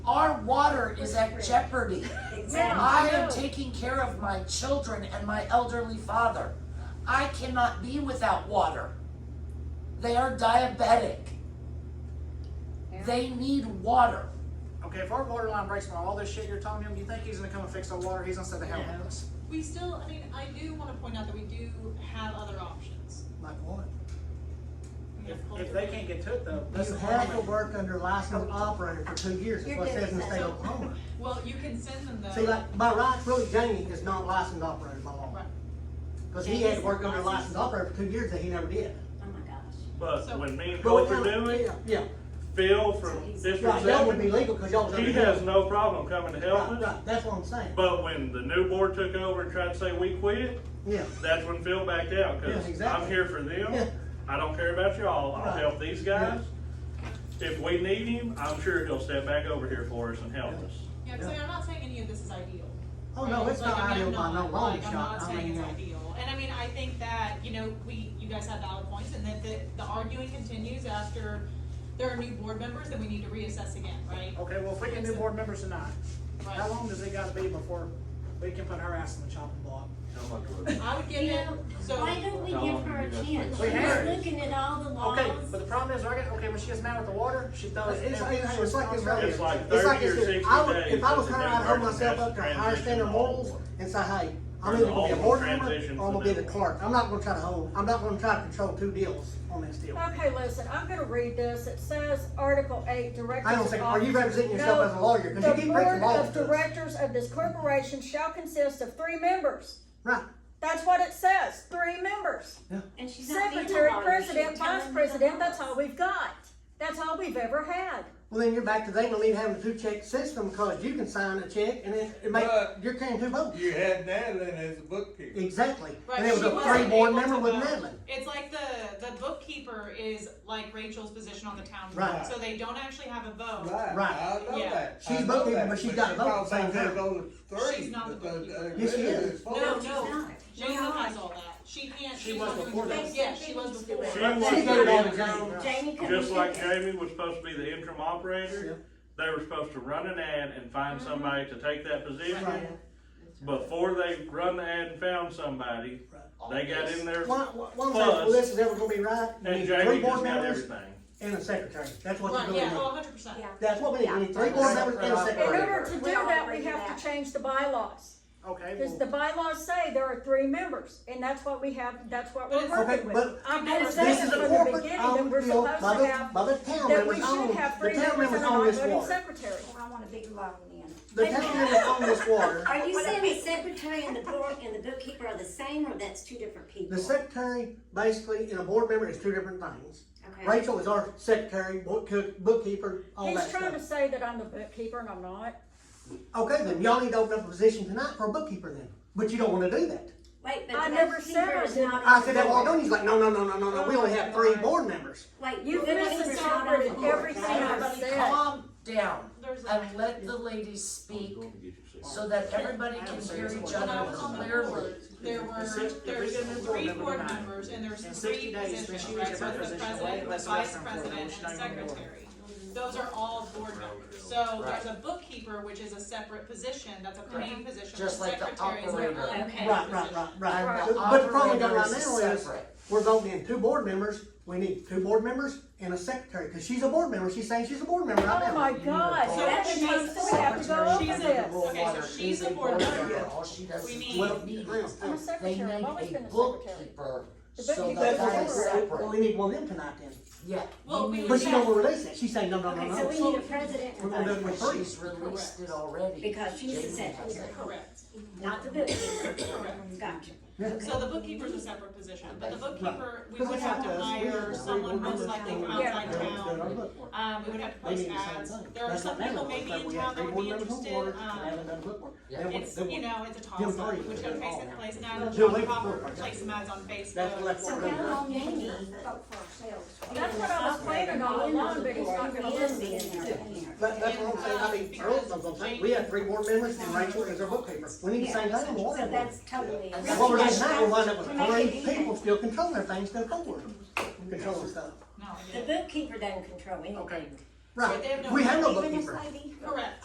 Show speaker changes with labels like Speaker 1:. Speaker 1: That water is at jeopardy. I am
Speaker 2: No.
Speaker 1: taking care of my children and my elderly father. I cannot be without water. They are diabetic. They need water.
Speaker 3: Okay, if our water line breaks tomorrow, all this shit you're telling him, you think he's gonna come and fix our water? He's gonna sit the hell with us.
Speaker 4: We still, I mean, I do wanna point out that we do have other options.
Speaker 3: Like what? If,
Speaker 4: We have
Speaker 3: if
Speaker 4: culture.
Speaker 3: they can't get to it though,
Speaker 5: You
Speaker 3: listen,
Speaker 5: have to work under licensed operator for two years, is
Speaker 2: You're
Speaker 5: what it says in the
Speaker 2: doing
Speaker 5: state
Speaker 2: that.
Speaker 5: of Oklahoma.
Speaker 4: Well, you can send them though.
Speaker 5: See, like, by rights, really, Jamie is not licensed operator by law,
Speaker 4: Right.
Speaker 5: because he had to work under licensed operator for two years that he never did.
Speaker 2: Oh my gosh.
Speaker 6: But
Speaker 4: So-
Speaker 6: when me and
Speaker 5: But we
Speaker 6: Coulter
Speaker 5: kinda-
Speaker 6: do it,
Speaker 5: Yeah,
Speaker 6: Phil from
Speaker 5: yeah. right,
Speaker 6: District
Speaker 5: that would be
Speaker 6: Seven,
Speaker 5: legal, because y'all was under.
Speaker 6: he has no problem coming to help
Speaker 5: Right,
Speaker 6: us.
Speaker 5: right, that's what I'm saying,
Speaker 6: But when the new board took over and tried to say we quit,
Speaker 5: yeah.
Speaker 6: that's when Phil backed out,
Speaker 5: Yeah,
Speaker 6: cause
Speaker 5: exactly.
Speaker 6: I'm here for
Speaker 5: Yeah.
Speaker 6: them. I don't care about y'all, I'll
Speaker 5: Right.
Speaker 6: help these guys. If we need him, I'm sure he'll step back over here for us and help
Speaker 5: Yeah.
Speaker 6: us.
Speaker 4: Yeah, cause I mean, I'm not saying any of this is ideal.
Speaker 5: Oh, no,
Speaker 4: right?
Speaker 5: it's
Speaker 4: Like,
Speaker 5: not
Speaker 4: I mean,
Speaker 5: ideal
Speaker 4: I'm
Speaker 5: by no
Speaker 4: not-
Speaker 5: long
Speaker 4: like, I'm
Speaker 5: shot,
Speaker 4: not
Speaker 5: I
Speaker 4: saying
Speaker 5: mean,
Speaker 4: it's
Speaker 5: uh,
Speaker 4: ideal, and I mean, I think that, you know, we, you guys have valid points, and that the, the arguing continues after there are new board members, then we need to reassess again, right?
Speaker 3: Okay, well, if we get new board members tonight, how
Speaker 4: Right.
Speaker 3: long does it gotta be before we can put her ass on the chopping block?
Speaker 4: I would give
Speaker 2: You
Speaker 4: it,
Speaker 2: know,
Speaker 4: so.
Speaker 2: why don't we give her a chance?
Speaker 3: We have.
Speaker 2: She's looking at all the laws.
Speaker 3: Okay, but the problem is, right, okay, when she gets mad with the water, she throws
Speaker 5: Um, It's,
Speaker 3: it.
Speaker 5: it's,
Speaker 3: in.
Speaker 5: it's,
Speaker 3: She
Speaker 5: it's like this
Speaker 3: throws it
Speaker 5: right here.
Speaker 6: It's like
Speaker 5: It's
Speaker 6: 30 or
Speaker 5: this here.
Speaker 6: 60
Speaker 5: I would,
Speaker 6: days
Speaker 5: if I was
Speaker 6: is the
Speaker 5: her, I'd hold
Speaker 6: conversion
Speaker 5: myself
Speaker 6: has
Speaker 5: up to a higher
Speaker 6: transition
Speaker 5: standard of
Speaker 6: to all
Speaker 5: morals
Speaker 6: board.
Speaker 5: and say, hey, I'm
Speaker 6: There's
Speaker 5: either
Speaker 6: a
Speaker 5: gonna be a
Speaker 6: whole
Speaker 5: board member
Speaker 6: transition
Speaker 5: or I'm
Speaker 6: to
Speaker 5: gonna be the
Speaker 6: that.
Speaker 5: clerk. I'm not gonna try to hold, I'm not gonna try to control two deals on this deal.
Speaker 7: Okay, listen, I'm gonna read this. It says, Article eight, directors.
Speaker 5: Hang on a second, are you
Speaker 7: of-
Speaker 5: representing yourself
Speaker 7: No,
Speaker 5: as a lawyer? 'Cause you keep breaking
Speaker 7: The board
Speaker 5: laws
Speaker 7: of
Speaker 5: to us.
Speaker 7: directors of this corporation shall consist of three members.
Speaker 5: Right,
Speaker 7: That's what it says, three members.
Speaker 2: And she's not being a
Speaker 7: Secretary,
Speaker 2: lawyer. She's telling
Speaker 7: president, vice
Speaker 2: you the
Speaker 7: president, that's
Speaker 2: laws.
Speaker 7: all we've got. That's all we've ever had.
Speaker 5: well then you're back to they believe having a two check system because you can sign a check and it, it make,
Speaker 8: But-
Speaker 5: you're carrying two votes.
Speaker 8: You had Natalie as a bookkeeper.
Speaker 5: Exactly.
Speaker 4: Right,
Speaker 5: And it was
Speaker 4: she
Speaker 5: a
Speaker 4: wasn't
Speaker 5: three board
Speaker 4: able
Speaker 5: member
Speaker 4: to
Speaker 5: with
Speaker 4: vote.
Speaker 5: Madeline.
Speaker 4: It's like the, the bookkeeper is like Rachel's position on the town board,
Speaker 5: Right.
Speaker 4: so they don't actually have a vote.
Speaker 8: Right,
Speaker 5: Right.
Speaker 8: I know
Speaker 4: Yeah.
Speaker 8: that.
Speaker 5: She's
Speaker 8: I know
Speaker 5: bookkeeper,
Speaker 8: that,
Speaker 5: but she's got both
Speaker 8: probably
Speaker 5: signed
Speaker 8: voted
Speaker 5: up.
Speaker 8: on the three, uh,
Speaker 4: She's not the
Speaker 8: but the-
Speaker 4: bookkeeper.
Speaker 8: the
Speaker 5: Yes, she
Speaker 8: rest
Speaker 5: is.
Speaker 8: four.
Speaker 4: No,
Speaker 2: She's
Speaker 4: no,
Speaker 2: not.
Speaker 4: She has all that, she can't.
Speaker 3: She
Speaker 4: she's
Speaker 3: was
Speaker 4: not doing
Speaker 3: before
Speaker 4: that.
Speaker 3: that.
Speaker 4: Yeah, she was before.
Speaker 6: She
Speaker 2: Jamie
Speaker 6: wants
Speaker 5: She
Speaker 6: to
Speaker 5: voted
Speaker 6: be
Speaker 5: on
Speaker 6: in
Speaker 5: it,
Speaker 6: control.
Speaker 5: Jamie.
Speaker 2: Jamie can
Speaker 6: Just
Speaker 2: do
Speaker 6: like
Speaker 2: this.
Speaker 6: Jamie was supposed to be the interim operator, they were supposed to run an ad and find somebody to take that
Speaker 5: Right.
Speaker 6: position. Before they run the ad and found somebody, they got in there
Speaker 5: One, one
Speaker 6: Plus-
Speaker 5: well, this is ever gonna be right. You
Speaker 6: and
Speaker 5: need
Speaker 6: Jamie
Speaker 5: three
Speaker 6: just
Speaker 5: board
Speaker 6: got
Speaker 5: members
Speaker 6: everything.
Speaker 5: and a secretary. That's what you're
Speaker 4: Right,
Speaker 5: going
Speaker 4: yeah,
Speaker 5: to
Speaker 4: oh,
Speaker 5: do.
Speaker 4: hundred percent.
Speaker 2: Yeah.
Speaker 5: That's what we need. We need three
Speaker 3: Yeah.
Speaker 5: board members and a
Speaker 7: In order
Speaker 5: secretary.
Speaker 7: to do
Speaker 2: We all
Speaker 7: that,
Speaker 2: agree
Speaker 7: we
Speaker 2: to
Speaker 7: have
Speaker 2: that.
Speaker 7: to change the bylaws.
Speaker 3: Okay,
Speaker 7: Because the
Speaker 3: well,
Speaker 7: bylaws say there are three members, and that's what we have, that's what
Speaker 4: But
Speaker 7: we're
Speaker 4: it's-
Speaker 5: Okay,
Speaker 7: working with.
Speaker 5: but
Speaker 7: I've been
Speaker 4: This
Speaker 7: saying
Speaker 5: this
Speaker 7: from
Speaker 5: is a
Speaker 7: the
Speaker 5: corporate
Speaker 7: beginning that
Speaker 5: owned
Speaker 7: we're
Speaker 5: deal
Speaker 7: supposed
Speaker 5: by
Speaker 7: to
Speaker 5: the,
Speaker 7: have,
Speaker 5: by the town
Speaker 7: that we
Speaker 5: members
Speaker 7: should
Speaker 5: own,
Speaker 7: have
Speaker 5: the
Speaker 7: three
Speaker 5: town
Speaker 7: members
Speaker 5: members
Speaker 7: and a
Speaker 5: own this
Speaker 7: non-voting
Speaker 5: water.
Speaker 7: secretary.
Speaker 2: I want a big loan then.
Speaker 5: The town members own this water.
Speaker 2: Are you saying the secretary and the board and the bookkeeper are the same, or that's two different people?
Speaker 5: The secretary, basically, and a board member is two different things.
Speaker 2: Okay.
Speaker 5: Rachel is our secretary, book- cook- bookkeeper, all that
Speaker 7: He's trying to
Speaker 5: stuff.
Speaker 7: say that I'm the bookkeeper and I'm not.
Speaker 5: Okay, then y'all need to open up a position tonight for a bookkeeper then, but you don't wanna do that.
Speaker 2: Wait, but
Speaker 7: I
Speaker 2: the
Speaker 7: never said
Speaker 2: bookkeeper
Speaker 7: I
Speaker 2: is
Speaker 7: did.
Speaker 2: not.
Speaker 5: I
Speaker 2: on
Speaker 5: said
Speaker 2: the
Speaker 5: that while
Speaker 2: board.
Speaker 5: done, he's like, no, no, no, no, no, no, we only have three board members.
Speaker 2: Wait,
Speaker 7: You've
Speaker 2: the bookkeeper's not on the
Speaker 7: misinterpreted
Speaker 2: board.
Speaker 7: everything I've
Speaker 1: Everybody
Speaker 7: said.
Speaker 1: calm down
Speaker 4: There's a-
Speaker 1: and let the ladies speak so that everybody can hear each
Speaker 4: When I
Speaker 1: other
Speaker 4: was on the
Speaker 1: clearly.
Speaker 4: board, there were,
Speaker 3: If six- if we
Speaker 4: there's
Speaker 3: get a new board
Speaker 4: three
Speaker 3: member
Speaker 4: board
Speaker 3: tonight,
Speaker 4: members, and there's
Speaker 3: in
Speaker 4: three
Speaker 3: 60 days, then
Speaker 4: positions,
Speaker 3: she
Speaker 4: right,
Speaker 3: leaves
Speaker 4: so
Speaker 3: her
Speaker 4: it's the
Speaker 3: position away,
Speaker 4: president, the
Speaker 3: unless
Speaker 4: vice
Speaker 3: there's something
Speaker 4: president,
Speaker 3: wrong,
Speaker 4: and the
Speaker 3: she's not even
Speaker 4: secretary. Those are all board members, so there's a bookkeeper, which is a separate position, that's a main position, the
Speaker 1: Just like the
Speaker 4: secretary is their
Speaker 1: operator.
Speaker 4: own
Speaker 2: Okay.
Speaker 4: head
Speaker 5: Right, right,
Speaker 4: position.
Speaker 5: right,
Speaker 1: And
Speaker 5: right.
Speaker 1: the
Speaker 5: So- But the problem we got right
Speaker 1: operator is
Speaker 5: now is,
Speaker 1: separate.
Speaker 5: we're voting in two board members, we need two board members and a secretary, cause she's a board member, she's saying she's a board member right
Speaker 7: Oh
Speaker 5: now.
Speaker 7: my God,
Speaker 4: So
Speaker 7: that
Speaker 4: she's
Speaker 7: means we have to go over
Speaker 4: she's a-
Speaker 7: this.
Speaker 4: okay, so she's a board member.
Speaker 1: All she does
Speaker 4: We
Speaker 1: is
Speaker 4: need-
Speaker 1: give me this.
Speaker 7: I'm a
Speaker 1: They
Speaker 7: secretary, I've always
Speaker 1: need
Speaker 7: been
Speaker 1: a
Speaker 7: a secretary.
Speaker 1: bookkeeper,
Speaker 7: The
Speaker 1: so
Speaker 7: bookkeeper
Speaker 1: that
Speaker 5: That's what
Speaker 1: that
Speaker 5: I'm
Speaker 1: is
Speaker 5: saying. Well,
Speaker 1: separate.
Speaker 5: we need one of them tonight then.
Speaker 1: Yeah.
Speaker 4: Well,
Speaker 1: you
Speaker 4: we-
Speaker 1: need
Speaker 5: But she
Speaker 1: that.
Speaker 5: don't wanna release it, she's saying, no, no, no,
Speaker 2: Okay, so
Speaker 5: no.
Speaker 2: we need a president
Speaker 5: We're
Speaker 2: and
Speaker 5: gonna do
Speaker 2: vice
Speaker 5: it with
Speaker 2: president,
Speaker 5: three.
Speaker 1: She's released it already.
Speaker 2: because she's the
Speaker 1: Jamie has
Speaker 2: secretary,
Speaker 1: it.
Speaker 4: Correct.
Speaker 2: not the bookkeeper. Gotcha.
Speaker 4: So the bookkeeper's a separate position, but the bookkeeper, we would have to hire someone most likely from outside town. Um, we would have to post ads. There are some people maybe in town that would be interested, um, it's, you know, it's a toss up, which go Facebook place and ads,
Speaker 5: Jill, leave the
Speaker 4: proper
Speaker 5: board.
Speaker 4: place some ads on
Speaker 5: That's
Speaker 4: Facebook.
Speaker 5: left
Speaker 2: So
Speaker 5: one.
Speaker 2: how
Speaker 5: over.
Speaker 2: long do we need to vote for ourselves?
Speaker 7: That's what I was planning all along, but he's not gonna
Speaker 2: Ian
Speaker 7: listen.
Speaker 2: being there, being there.
Speaker 5: That, that's what I'm
Speaker 4: uh,
Speaker 5: saying, I mean, Earl's not gonna think, we have three board members and Rachel is our bookkeeper. We need the same thing on the water
Speaker 2: So
Speaker 5: board.
Speaker 2: that's totally.
Speaker 1: And
Speaker 5: And What we're doing now, we're winding up
Speaker 2: To
Speaker 5: with
Speaker 2: make it
Speaker 5: three
Speaker 2: even.
Speaker 5: people still controlling their things to the board, controlling stuff.
Speaker 4: No, I
Speaker 2: The
Speaker 4: didn't.
Speaker 2: bookkeeper doesn't control anything.
Speaker 5: Right, we have no bookkeeper.
Speaker 4: Correct.